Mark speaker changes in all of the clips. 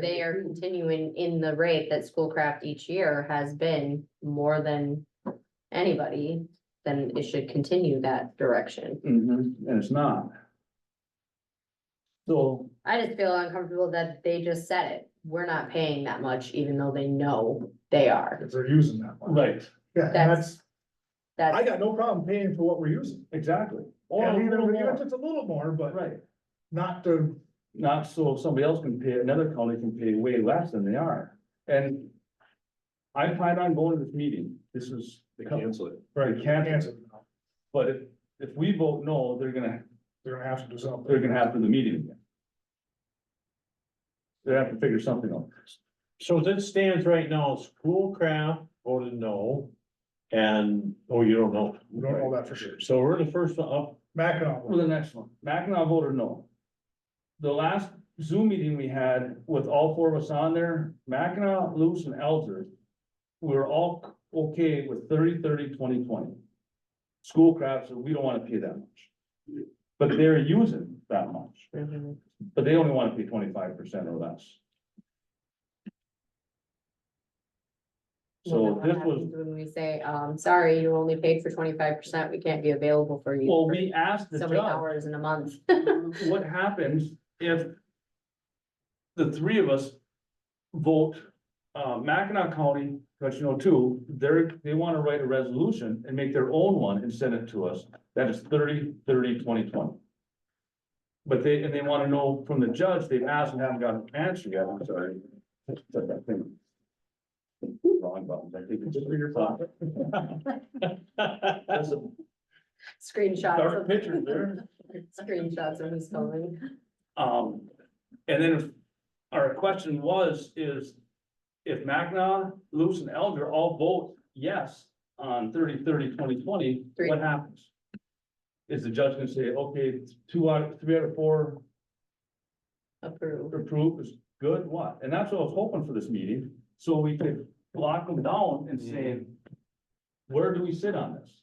Speaker 1: they are continuing in the rate that Schoolcraft each year has been more than anybody, then it should continue that direction.
Speaker 2: Mhm, and it's not. So,
Speaker 1: I just feel uncomfortable that they just said it. We're not paying that much, even though they know they are.
Speaker 3: if they're using that one.
Speaker 2: right,
Speaker 3: Yeah, and
Speaker 1: That's-
Speaker 3: that's, I
Speaker 1: That's,
Speaker 3: got no problem paying for what we're using.
Speaker 2: exactly. Or a
Speaker 3: And even
Speaker 2: little
Speaker 3: even if
Speaker 2: more,
Speaker 3: it's a little more, but
Speaker 2: right,
Speaker 3: not to,
Speaker 2: not so somebody else can pay, another county can pay way less than they are, and. I plan on going to this meeting, this is. They cancel it.
Speaker 3: right,
Speaker 2: They cancel
Speaker 3: cancel.
Speaker 2: it,
Speaker 3: it now.
Speaker 2: but if, if we vote no, they're gonna,
Speaker 3: They're gonna have to do something.
Speaker 2: they're gonna have to the meeting again. They have to figure something out.
Speaker 4: So as it stands right now, Schoolcraft voted no. And, oh, you don't know.
Speaker 3: We don't know that for sure.
Speaker 4: So we're the first one up.
Speaker 2: For
Speaker 3: Mackinac,
Speaker 2: the next one, Mackinac voted no. The last Zoom meeting we had with all four of us on there, Mackinac, Luce and Elder. We were all okay with 30, 30, 20, 20. Schoolcraft said, we don't wanna pay that much. But they're using that much,
Speaker 1: Mhm.
Speaker 2: but they only wanna pay twenty-five percent or less.
Speaker 1: Well,
Speaker 2: So
Speaker 1: then
Speaker 2: this
Speaker 1: what
Speaker 2: was,
Speaker 1: happens When we say, um, sorry, you only paid for twenty-five percent, we can't be available for you.
Speaker 2: well,
Speaker 1: for
Speaker 2: we asked the
Speaker 1: So many
Speaker 2: judge.
Speaker 1: hours in a month.
Speaker 2: what happens if the three of us vote, uh, Mackinac County, because you know, too, they're, they want to write a resolution and make their own one and send it to us. That is 30, 30, 20, 20. But they, and they want to know from the judge, they've asked and haven't gotten an answer yet, I'm sorry. Said that thing. Wrong buttons, I think it's just for your thought. That's a
Speaker 1: Screenshots
Speaker 2: dark
Speaker 1: of,
Speaker 2: picture there.
Speaker 1: screenshots of who's calling.
Speaker 2: Um, and then if, our question was, is if Magna, Luce and Elder all vote yes on 30, 30, 20, 20,
Speaker 1: Three.
Speaker 2: what happens? Is the judge gonna say, okay, two out, three out of four
Speaker 1: Approved.
Speaker 2: approve is good, what? And that's what I was hoping for this meeting, so we could lock them down and say, where do we sit on this?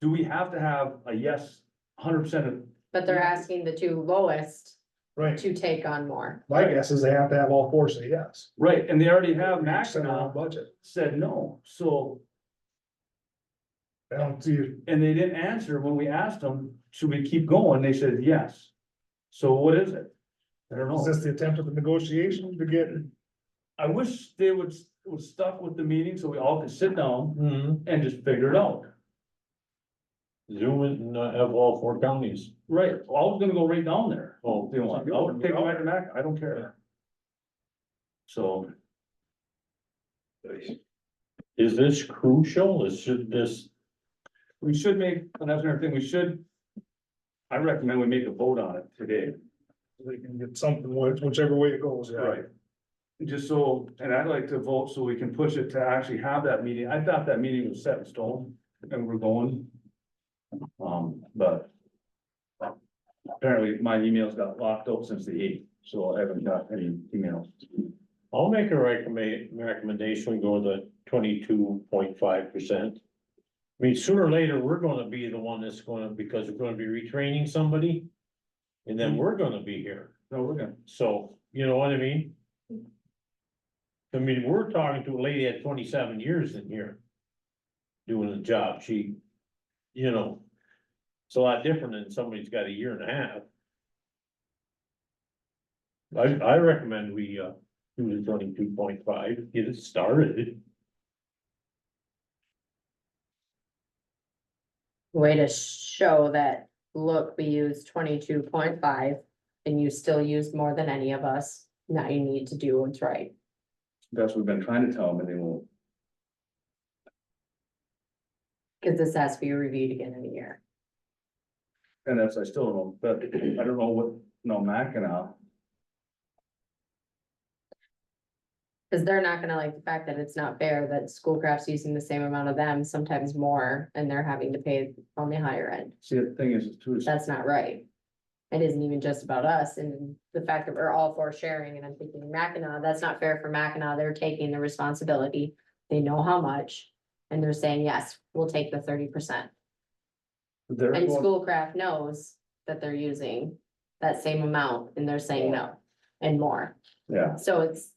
Speaker 2: Do we have to have a yes, hundred percent of,
Speaker 1: But they're asking the two lowest
Speaker 3: right.
Speaker 1: to take on more.
Speaker 3: My guess is they have to have all four say yes.
Speaker 2: right, and they already have
Speaker 3: Send out
Speaker 2: Magna
Speaker 3: budget.
Speaker 2: said no, so
Speaker 3: I don't see, it.
Speaker 2: And they didn't answer when we asked them, should we keep going? They said, yes. So what is it? I don't
Speaker 3: is
Speaker 2: know.
Speaker 3: this the attempt at the negotiation to get?
Speaker 2: I wish they would, would stuck with the meeting so we all could sit down
Speaker 4: Zoom
Speaker 2: and just figure it out.
Speaker 4: in and uh, have all four counties.
Speaker 2: Right, well, I was gonna go right down there.
Speaker 4: Oh,
Speaker 2: If they want, I'll take them right back, I don't care. So,
Speaker 4: is this crucial? Is should this,
Speaker 2: we should make, and that's another thing, we should. I recommend we make a vote on it today.
Speaker 3: They can get something, which- whichever way it goes, yeah.
Speaker 2: Right. Just so, and I'd like to vote so we can push it to actually have that meeting. I thought that meeting was set in stone and we're going. Um, but. Apparently my emails got locked up since the eighth, so I haven't got any emails.
Speaker 4: I'll make a recommend, recommendation, we go to twenty-two point five percent. I mean, sooner or later, we're gonna be the one that's gonna, because we're gonna be retraining somebody. And then we're gonna be here.
Speaker 2: Hmm. No, we're gonna,
Speaker 4: So, you know what I mean? I mean, we're talking to a lady at twenty-seven years in here. Doing the job, she, you know. It's a lot different than somebody's got a year and a half. I, I recommend we, uh, do the twenty-two point five, get it started.
Speaker 1: Way to show that, look, we used twenty-two point five and you still used more than any of us. Now you need to do what's right.
Speaker 2: that's what we've been trying to tell them and they won't.
Speaker 1: Cause this has to be reviewed again in a year.
Speaker 2: And that's, I still don't, but I don't know what, no, Mackinac.
Speaker 1: Cause they're not gonna like the fact that it's not fair that Schoolcraft's using the same amount of them, sometimes more, and they're having to pay on the higher end.
Speaker 2: See, the thing is, it's too,
Speaker 1: That's not right. It isn't even just about us and the fact that we're all for sharing and I'm thinking Mackinac, that's not fair for Mackinac. They're taking the responsibility. They know how much. And they're saying, yes, we'll take the thirty percent.
Speaker 2: they're
Speaker 1: And
Speaker 2: going,
Speaker 1: Schoolcraft knows that they're using that same amount and they're saying no. and more.
Speaker 5: Yeah.
Speaker 1: So it's